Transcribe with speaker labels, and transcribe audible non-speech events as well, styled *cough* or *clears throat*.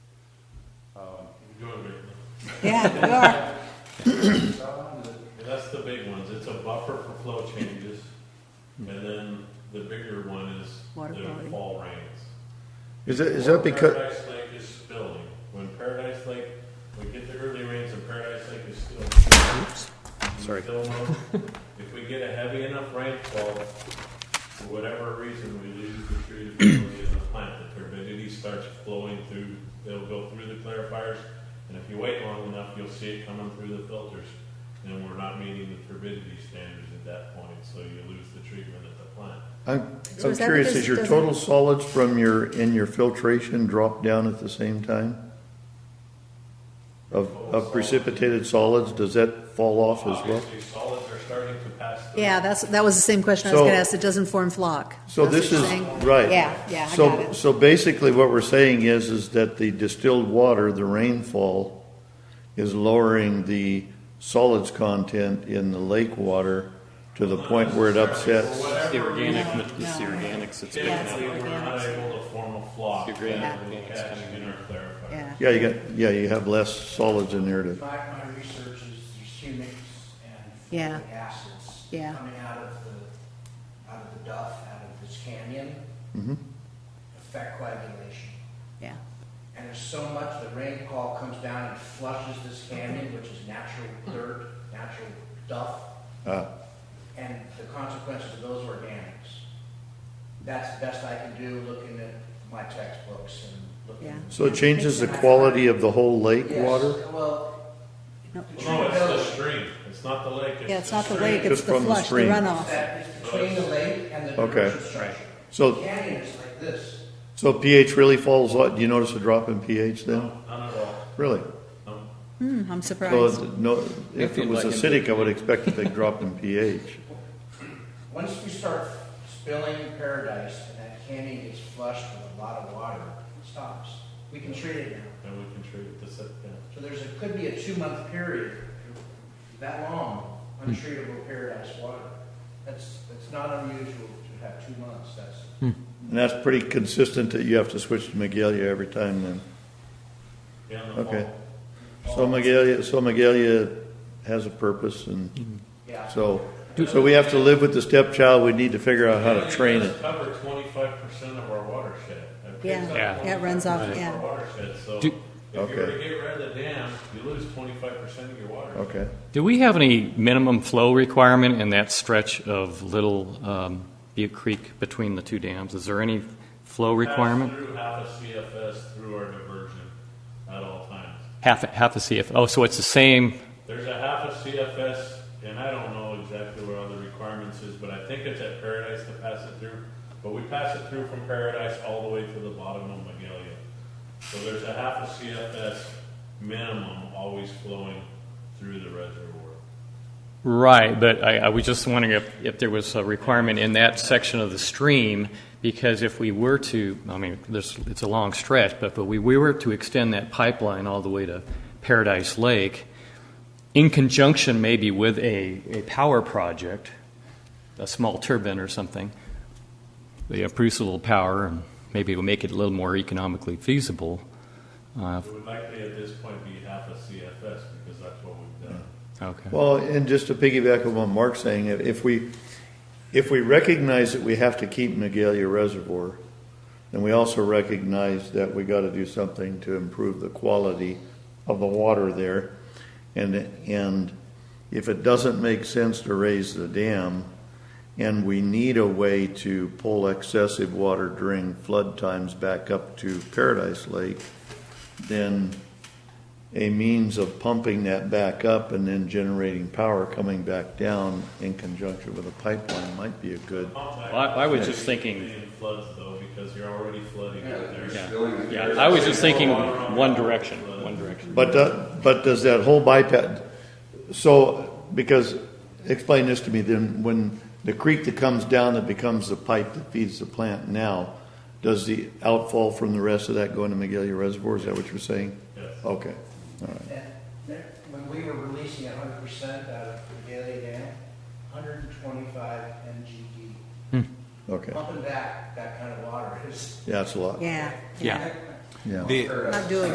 Speaker 1: Um, doing it.
Speaker 2: Yeah, we are.
Speaker 1: And *laughs* that's the big ones, it's a buffer for flow changes, and then the bigger one is
Speaker 2: Water
Speaker 1: the
Speaker 2: quality.
Speaker 1: fall rains.
Speaker 3: Is that, is that
Speaker 1: Or
Speaker 3: because,
Speaker 1: Paradise Lake is spilling, when Paradise Lake, we get the early rains and Paradise Lake is still.
Speaker 3: Sorry.
Speaker 1: Still low. If we get a heavy enough rainfall, for whatever reason, we lose the *clears throat* tree turbidity in the plant, the turbidity starts flowing through, it'll go through the clarifiers, and if you wait long enough, you'll see it coming through the filters, and we're not meeting the turbidity standards at that point, so you lose the treatment at the plant.
Speaker 3: I'm,
Speaker 2: So
Speaker 3: I'm
Speaker 2: is that
Speaker 3: curious,
Speaker 2: because
Speaker 3: is
Speaker 2: it
Speaker 3: your
Speaker 2: doesn't-
Speaker 3: total solids from your, in your filtration drop down at the same time? Of, of precipitated solids, does that fall off as well?
Speaker 1: Obviously, solids are starting to pass through.
Speaker 2: Yeah, that's, that was the same question I was
Speaker 3: So-
Speaker 2: gonna ask. It doesn't form flock.
Speaker 3: So
Speaker 2: That's
Speaker 3: this
Speaker 2: what
Speaker 3: is,
Speaker 2: you're saying?
Speaker 3: right.
Speaker 2: Yeah, yeah, I got
Speaker 3: So,
Speaker 2: it.
Speaker 3: so basically what we're saying is, is that the distilled water, the rainfall, is lowering the solids content in the lake water to the point where it upsets.
Speaker 1: For whatever
Speaker 4: The organic,
Speaker 1: reason,
Speaker 4: it's the
Speaker 2: No.
Speaker 4: organics that's picking
Speaker 2: Yeah, it's
Speaker 4: up.
Speaker 1: Typically, we're not
Speaker 2: organics.
Speaker 1: able to form a flock.
Speaker 4: Your grain
Speaker 1: that we
Speaker 4: organics
Speaker 1: catch
Speaker 4: coming
Speaker 1: in
Speaker 4: in.
Speaker 1: our clarifier.
Speaker 2: Yeah.
Speaker 3: Yeah, you got, yeah, you have less solids in there to
Speaker 5: My, my research is there's humics and
Speaker 2: Yeah.
Speaker 5: folic acids
Speaker 2: Yeah.
Speaker 5: coming out of the, out of the duff, out of this canyon,
Speaker 3: Mhm.
Speaker 5: affect coagulation.
Speaker 2: Yeah,
Speaker 5: And there's so much, the rainfall comes down and flushes this canyon, which is natural dirt, natural duff,
Speaker 3: Uh,
Speaker 5: and the consequences of those organics. That's the best I can do, looking at my textbooks and
Speaker 2: Yeah.
Speaker 5: looking.
Speaker 3: So it changes the quality of the whole lake
Speaker 5: Yes,
Speaker 3: water?
Speaker 5: Well.
Speaker 2: No.
Speaker 5: the
Speaker 1: No, it's the
Speaker 5: treatability-
Speaker 1: stream, it's not the lake.
Speaker 2: yeah, it's not the
Speaker 1: stream.
Speaker 2: lake, it's
Speaker 3: Just
Speaker 2: the
Speaker 3: from the
Speaker 2: flush, the
Speaker 3: stream.
Speaker 2: runoff.
Speaker 5: That is between the lake and the
Speaker 3: Okay.
Speaker 5: diversion structure. The
Speaker 3: So,
Speaker 5: canyon is like this.
Speaker 3: so pH really falls, off- do you notice a drop in pH then?
Speaker 1: No, Not at all.
Speaker 3: Really?
Speaker 1: No.
Speaker 2: Hmm, I'm
Speaker 3: So,
Speaker 2: surprised.
Speaker 3: it's- no, if it was acidic, I would expect a big drop in pH.
Speaker 5: Once we start spilling paradise and that canyon gets flushed with a lot of water, it stops. We can treat it now.
Speaker 1: And we can treat this, at- yeah.
Speaker 5: So there's, it could be a two-month period, that long, untreatable paradise water. That's, that's not unusual to have two months, that's.
Speaker 3: And that's pretty consistent that you have to switch to Megalia every time then.
Speaker 1: yeah, in the
Speaker 3: Okay.
Speaker 1: fall.
Speaker 3: So Megalia, so Megalia has a purpose and
Speaker 5: Yeah.
Speaker 3: so, so we have to live with the stepchild, we need to figure out how to train it.
Speaker 1: Cover twenty-five percent of our watershed. That
Speaker 2: Yeah.
Speaker 1: takes up
Speaker 4: Yeah.
Speaker 2: Yeah, it runs off,
Speaker 1: 25%
Speaker 2: yeah.
Speaker 1: of our Watershed, so if
Speaker 4: Do-
Speaker 1: you were to
Speaker 3: Okay.
Speaker 1: get rid of the dam, you lose twenty-five percent of your water.
Speaker 3: Okay.
Speaker 4: Do we have any minimum flow requirement in that stretch of Little um, Butte Creek between the two dams? Is there any flow requirement?
Speaker 1: Pass Through half a CFS through our diversion at all times.
Speaker 4: Half, half a CF, oh, so it's the same,
Speaker 1: There's a half a CFS, and I don't know exactly what all the requirements is, but I think it's at Paradise to pass it through. But we pass it through from Paradise all the way to the bottom of Magalia. So there's a half a CFS minimum always flowing through the reservoir.
Speaker 4: right, but I, I was just wondering if, if there was a requirement in that section of the stream, because if we were to, I mean, there's, it's a long stretch, but if we we were to extend that pipeline all the way to Paradise Lake, in conjunction maybe with a, a power project, a small turbine or something, they produce a little power and maybe it will make it a little more economically feasible. Uh,
Speaker 1: It would likely at this point be half a CFS because that's what we've done.
Speaker 4: okay.
Speaker 3: Well, and just to piggyback on what Mark's saying, if- if we, if we recognize that we have to keep Magalia Reservoir, then we also recognize that we gotta do something to improve the quality of the water there. And, and if it doesn't make sense to raise the dam, and we need a way to pull excessive water during flood times back up to Paradise Lake, then a means of pumping that back up and then generating power coming back down in conjunction with a pipeline might be a good.
Speaker 4: Well, I, I was just thinking,
Speaker 1: Being floods though, because you're already flooding out there.
Speaker 4: yeah, yeah, I was just thinking one direction, one direction.
Speaker 3: But, do- but does that whole bypass, so, because, explain this to me, then, when the creek that comes down that becomes the pipe that feeds the plant now, does the outfall from the rest of that go into Magalia Reservoir, is that what you're saying?
Speaker 1: Yes.
Speaker 3: Okay,
Speaker 5: And there- when we were releasing hundred percent out of the Gailey Dam, hundred and twenty-five MGD.
Speaker 3: okay,
Speaker 5: Pumping back that kind of water is
Speaker 3: yeah, that's a lot,
Speaker 2: Yeah,
Speaker 4: Yeah.
Speaker 3: yeah.
Speaker 5: Or, uh,
Speaker 2: not doing